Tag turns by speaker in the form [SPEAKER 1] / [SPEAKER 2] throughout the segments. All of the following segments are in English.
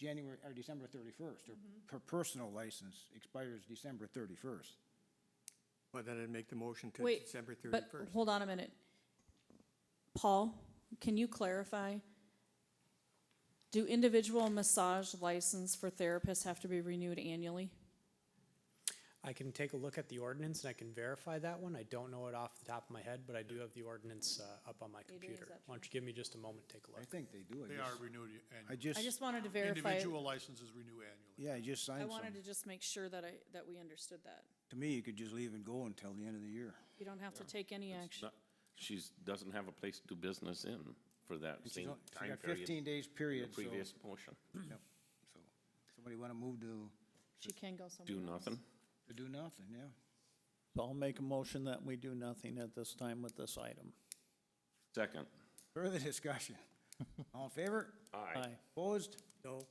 [SPEAKER 1] January, or December thirty-first, or
[SPEAKER 2] Mm-hmm.
[SPEAKER 1] per personal license expires December thirty-first.
[SPEAKER 3] Well, then I'd make the motion to
[SPEAKER 2] Wait,
[SPEAKER 3] December
[SPEAKER 2] But
[SPEAKER 3] thirty-first.
[SPEAKER 2] hold on a minute. Paul, can you clarify? Do individual massage license for therapists have to be renewed annually?
[SPEAKER 4] I can take a look at the ordinance and I can verify that one. I don't know it off the top of my head, but I do have the ordinance uh, up on my
[SPEAKER 2] Adrian, is
[SPEAKER 4] computer.
[SPEAKER 2] that
[SPEAKER 4] Why don't you give me just a moment, take a
[SPEAKER 1] I
[SPEAKER 4] look?
[SPEAKER 1] think they do, I
[SPEAKER 5] They are
[SPEAKER 1] just,
[SPEAKER 5] renewed
[SPEAKER 1] I
[SPEAKER 5] annually.
[SPEAKER 2] I
[SPEAKER 1] just,
[SPEAKER 2] just wanted to verify. it.
[SPEAKER 5] Individual licenses renew annually.
[SPEAKER 1] yeah, I just
[SPEAKER 2] I
[SPEAKER 1] signed some.
[SPEAKER 2] wanted to just make sure that I, that we understood that.
[SPEAKER 1] To me, you could just leave and go until the end of the year.
[SPEAKER 2] You don't have to take any action.
[SPEAKER 6] No, She's, doesn't have a place to do business in for
[SPEAKER 1] And
[SPEAKER 6] that
[SPEAKER 1] she's
[SPEAKER 6] same
[SPEAKER 1] on- she's
[SPEAKER 6] time
[SPEAKER 1] got
[SPEAKER 6] period.
[SPEAKER 1] Fifteen days
[SPEAKER 6] The
[SPEAKER 1] period, so,
[SPEAKER 6] previous motion,
[SPEAKER 1] yep, so, somebody wanna move to,
[SPEAKER 2] She can go somewhere.
[SPEAKER 6] do
[SPEAKER 2] else.
[SPEAKER 6] nothing.
[SPEAKER 1] to do nothing, yeah.
[SPEAKER 7] So I'll make a motion that we do nothing at this time with this item.
[SPEAKER 6] Second,
[SPEAKER 1] Further discussion? All in favor?
[SPEAKER 6] aye.
[SPEAKER 1] Opposed?
[SPEAKER 3] No,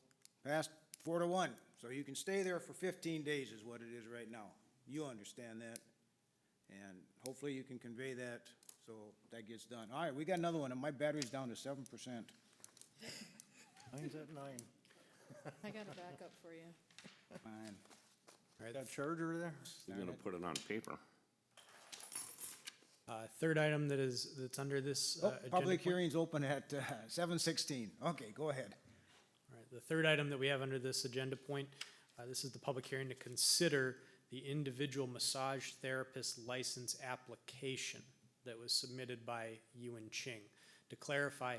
[SPEAKER 1] Passed four to one. So you can stay there for fifteen days is what it is right now. You understand that. And hopefully you can convey that so that gets done. All right, we got another one and my battery's down to seven percent.
[SPEAKER 7] Mine's at nine.
[SPEAKER 2] I got a backup for you.
[SPEAKER 1] Fine.
[SPEAKER 7] That charger there?
[SPEAKER 6] You're gonna put it on paper.
[SPEAKER 4] Uh, Third item that is, that's under this. uh,
[SPEAKER 1] Oh,
[SPEAKER 4] agenda
[SPEAKER 1] public
[SPEAKER 4] point-
[SPEAKER 1] hearing's open at uh, seven sixteen. Okay, go ahead.
[SPEAKER 4] All right, the third item that we have under this agenda point, uh, this is the public hearing to consider the individual massage therapist license application that was submitted by Yuan Ching. To clarify,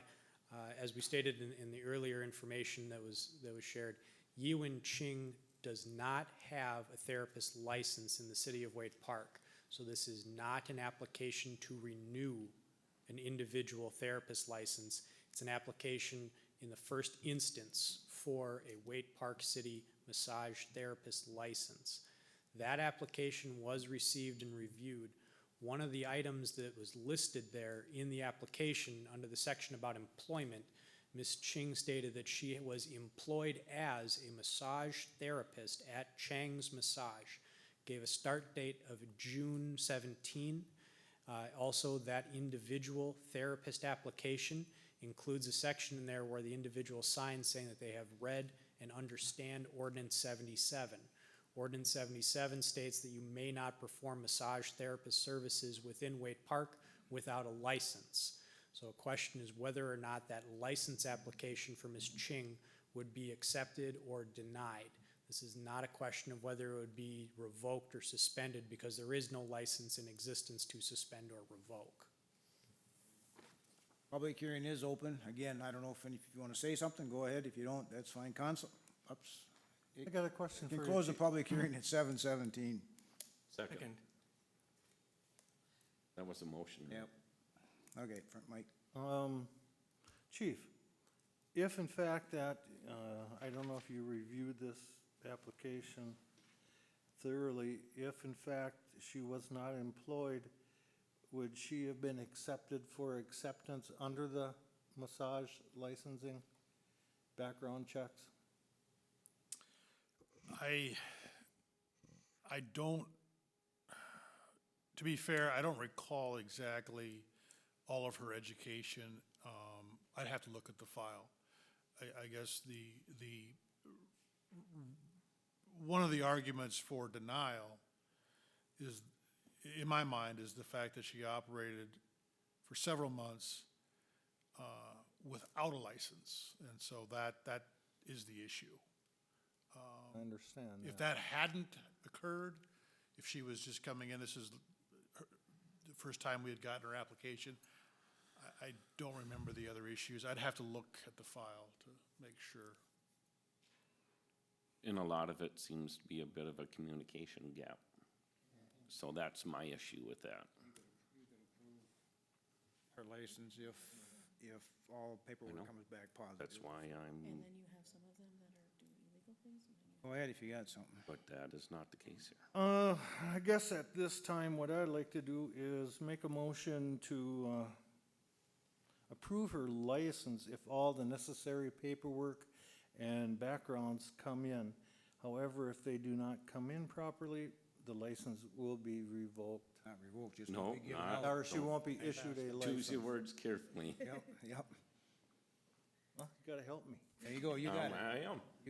[SPEAKER 4] uh, as we stated in, in the earlier information that was, that was shared, Yuan Ching does not have a therapist license in the city of Wade Park. So this is not an application to renew an individual therapist license. It's an application in the first instance for a Wade Park City massage therapist license. That application was received and reviewed. One of the items that was listed there in the application under the section about employment, Ms. Ching stated that she was employed as a massage therapist at Chang's Massage. Gave a start date of June 17. Uh, Also, that individual therapist application includes a section in there where the individual signs saying that they have read and understand ordinance 77. Ordinance 77 states that you may not perform massage therapist services within Wade Park without a license. So a question is whether or not that license application for Ms. Ching would be accepted or denied. This is not a question of whether it would be revoked or suspended because there is no license in existence to suspend or revoke.
[SPEAKER 1] Public hearing is open. Again, I don't know if any, if you want to say something, go ahead. If you don't, that's fine. Council, ups.
[SPEAKER 7] I got a question for
[SPEAKER 1] You
[SPEAKER 7] you.
[SPEAKER 1] can close the
[SPEAKER 7] Chief.
[SPEAKER 1] public hearing at seven seventeen.
[SPEAKER 6] Second,
[SPEAKER 3] second,
[SPEAKER 6] that was a motion.
[SPEAKER 1] Yep. Okay, front mic.
[SPEAKER 7] Um, Chief, if in fact that, uh, I don't know if you reviewed this application thoroughly, if in fact she was not employed, would she have been accepted for acceptance under the massage licensing background checks?
[SPEAKER 5] I, I don't, to be fair, I don't recall exactly all of her education. Um, I'd have to look at the file. I, I guess the, the, one of the arguments for denial is, in my mind, is the fact that she operated for several months uh, without a license. And so that, that is the issue.
[SPEAKER 7] I understand
[SPEAKER 5] If that
[SPEAKER 7] that.
[SPEAKER 5] hadn't occurred, if she was just coming in, this is her- the first time we had gotten her application, I, I don't remember the other issues. I'd have to look at the file to make sure.
[SPEAKER 6] And a lot of it seems to be a bit of a communication gap. So that's my issue with that.
[SPEAKER 1] her license if, if all
[SPEAKER 6] know.
[SPEAKER 1] paperwork comes back
[SPEAKER 6] That's
[SPEAKER 1] positive.
[SPEAKER 6] why I'm,
[SPEAKER 2] And then you have some of them that are doing illegal things.
[SPEAKER 1] Go ahead if you got something.
[SPEAKER 6] but that is not the case here.
[SPEAKER 7] Uh, I guess at this time, what I'd like to do is make a motion to, uh, approve her license if all the necessary paperwork and backgrounds come in. However, if they do not come in properly, the license will be revoked.
[SPEAKER 1] Not revoked, just.
[SPEAKER 6] No,
[SPEAKER 1] be given out.
[SPEAKER 6] not-
[SPEAKER 7] Or she won't be issued a
[SPEAKER 6] Choose your
[SPEAKER 7] license.
[SPEAKER 6] words carefully.
[SPEAKER 1] Yep, yep.
[SPEAKER 7] Huh? You gotta help me.
[SPEAKER 1] There you go, you
[SPEAKER 6] Um,
[SPEAKER 1] got it.
[SPEAKER 6] I am.